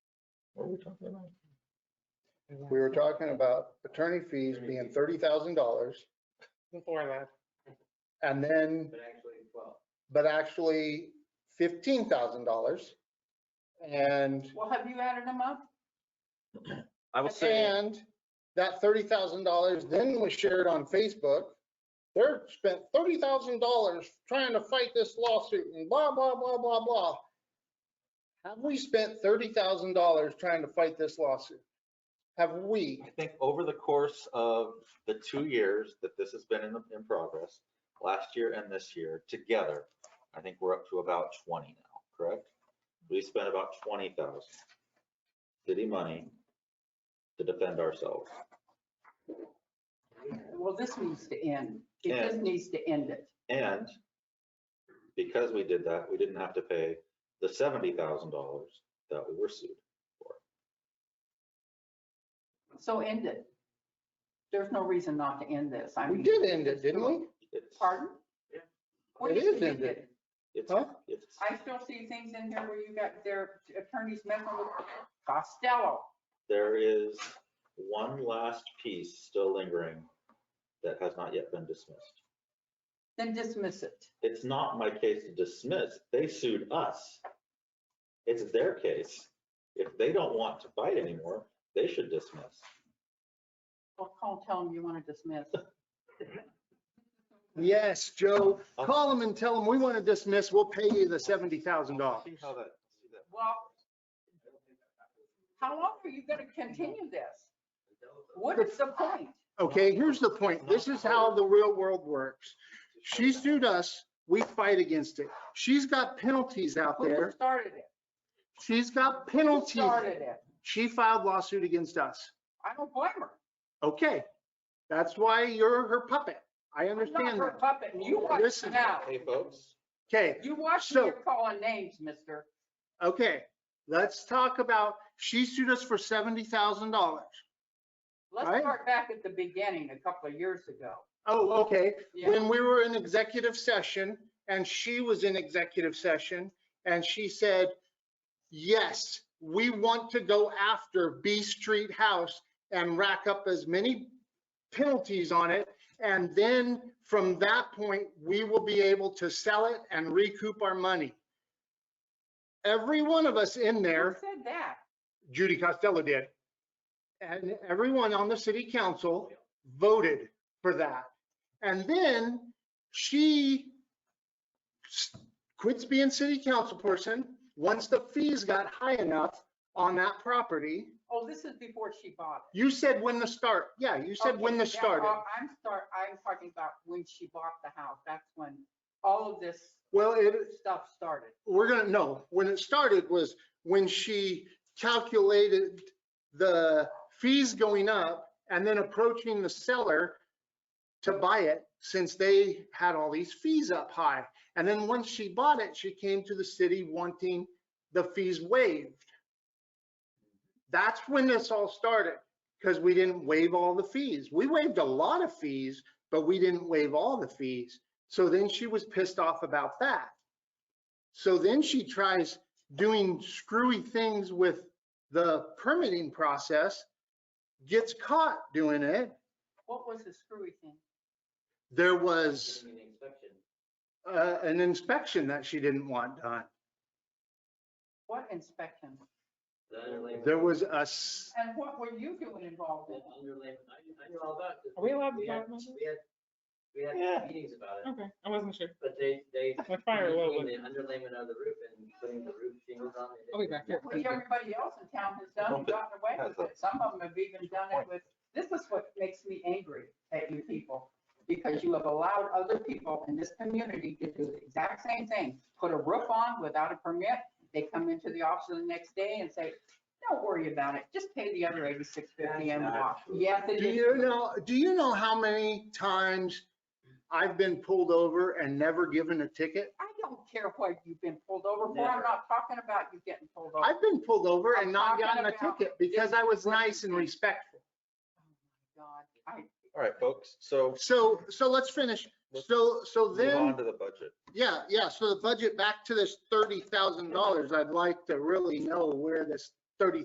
we talking about? We were talking about attorney fees being thirty thousand dollars Before that. and then, But actually, well, but actually fifteen thousand dollars. And, Well, have you added them up? I will say, and that thirty thousand dollars then was shared on Facebook. They're spent thirty thousand dollars trying to fight this lawsuit and blah, blah, blah, blah, blah. Have we spent thirty thousand dollars trying to fight this lawsuit? Have we? I think over the course of the two years that this has been in, in progress, last year and this year, together, I think we're up to about twenty now, correct? We spent about twenty thousand city money to defend ourselves. Well, this needs to end. It Yeah. just needs to end it. And because we did that, we didn't have to pay the seventy thousand dollars that we were sued. So end it. There's no reason not to end this. I We mean, did end it, didn't we? It's, Pardon? Yeah. What It do you is think ended. did? it's, Huh? it's, I still see things in here where you got their attorneys messing with Costello. there is one last piece still lingering that has not yet been dismissed. Then dismiss it. It's not my case to dismiss. They sued us. It's their case. If they don't want to fight anymore, they should dismiss. Well, call, tell them you want to dismiss. Yes, Joe, I'll- call them and tell them, we want to dismiss, we'll pay you the seventy thousand dollars. See how that, see that- Well, how long are you going to continue this? What is the point? Okay, here's the point, this is how the real world works. She sued us, we fight against it. She's got penalties out Who there, started it? she's got Who penalties. started it? She filed lawsuit against us. I don't blame her. Okay, that's why you're her puppet, I I'm not understand her that. puppet, and you watch Listen. it out. Hey, folks, Okay, You watch So- me calling names, mister. okay, let's talk about, she sued us for seventy thousand dollars. Let's Right. start back at the beginning a couple of years ago. Oh, okay, Yeah, when we were in executive session and she was in executive session and she said, yes, we want to go after B Street House and rack up as many penalties on it. And then from that point, we will be able to sell it and recoup our money. Every one of us in who there said that? Judy Costello did. And everyone on the city council voted for that. And then she s- quits being city council person once the fees got high enough on that property. Oh, this is before she bought it. You said when to start. Yeah, you said when Okay, to yeah, start. it. uh, I'm start, I'm talking about when she bought the house. That's when all of this Well, it, stuff started. we're gonna, no, when it started was when she calculated the fees going up and then approaching the seller to buy it since they had all these fees up high. And then once she bought it, she came to the city wanting the fees waived. That's when this all started, because we didn't waive all the fees. We waived a lot of fees, but we didn't waive all the fees. So then she was pissed off about that. So then she tries doing screwy things with the permitting process, gets caught doing it. What was the screwy thing? There was giving an inspection. uh, an inspection that she didn't want done. What inspection? The underlayment- There was a, s- And what were you doing involved the in? underlayment- I- I knew all about this. Are we allowed to We had- talk about this? We had, we Yeah. had meetings about it, Okay, I wasn't sure. but they, they. My fire between low was, The underlayment of the roof and putting the roof shingles on. they did- I'll be back here. Which everybody else in town has done and Well, gotten away that's with it. Some of them have even done it with, this is what makes me angry at you people. Because you have allowed other people in this community to do the exact same thing. Put a roof on without a permit. They come into the office the next day and say, don't worry about it. Just pay the other eighty-six fifty and That's not walk. true. Yes, it do is. you know, do you know how many times I've been pulled over and never given a ticket? I don't care what you've been pulled over for. I'm Never. not talking about you getting pulled over. Oh I've been pulled over and not gotten a I'm talking about ticket because I was nice and respectful. God, I, all right, folks, so So, so let's finish. So, so move then. on to the budget. Yeah, yeah, so the budget, back to this thirty thousand dollars, I'd like to really know where this